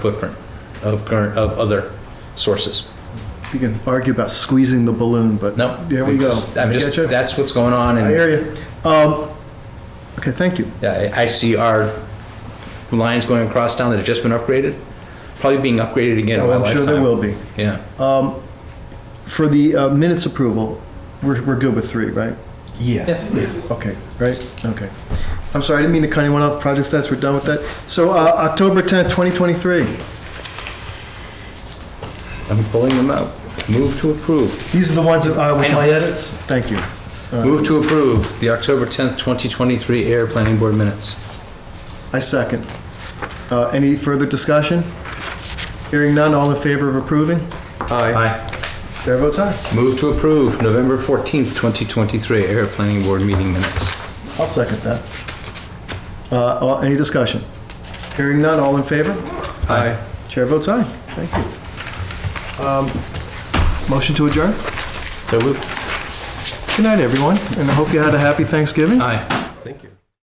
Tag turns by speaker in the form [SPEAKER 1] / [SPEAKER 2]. [SPEAKER 1] footprint of current, of other sources.
[SPEAKER 2] You can argue about squeezing the balloon, but
[SPEAKER 1] No.
[SPEAKER 2] here we go.
[SPEAKER 1] I'm
[SPEAKER 2] I
[SPEAKER 1] just,
[SPEAKER 2] get you.
[SPEAKER 1] that's what's going on
[SPEAKER 2] I
[SPEAKER 1] and
[SPEAKER 2] hear you. Um, okay, thank you.
[SPEAKER 1] yeah, I I see our lines going across town that have just been upgraded, probably being upgraded again in my
[SPEAKER 2] Oh, I'm
[SPEAKER 1] lifetime.
[SPEAKER 2] sure there will be.
[SPEAKER 1] Yeah.
[SPEAKER 2] For the uh, minutes approval, we're, we're good with three, right?
[SPEAKER 3] Yes.
[SPEAKER 2] Okay, right? Okay. I'm sorry, I didn't mean to cut anyone off. Project stats, we're done with that. So, uh, October 10th, 2023.
[SPEAKER 1] I'm pulling them out. Move to approve.
[SPEAKER 2] These are the ones that, uh, with
[SPEAKER 1] I know.
[SPEAKER 2] my edits? Thank you.
[SPEAKER 1] Move to approve the October 10th, 2023 air planning board minutes.
[SPEAKER 2] I second. Uh, any further discussion? Hearing none, all in favor of approving?
[SPEAKER 1] Aye.
[SPEAKER 2] Chair votes aye.
[SPEAKER 1] Move to approve November 14th, 2023 air planning board meeting minutes.
[SPEAKER 2] I'll second that. Uh, all- Any discussion? Hearing none, all in favor?
[SPEAKER 1] Aye.
[SPEAKER 2] Chair votes aye. Thank you. Um, Motion to adjourn?
[SPEAKER 1] So moved.
[SPEAKER 2] Good night, everyone, and I hope you had a happy Thanksgiving.
[SPEAKER 1] Aye.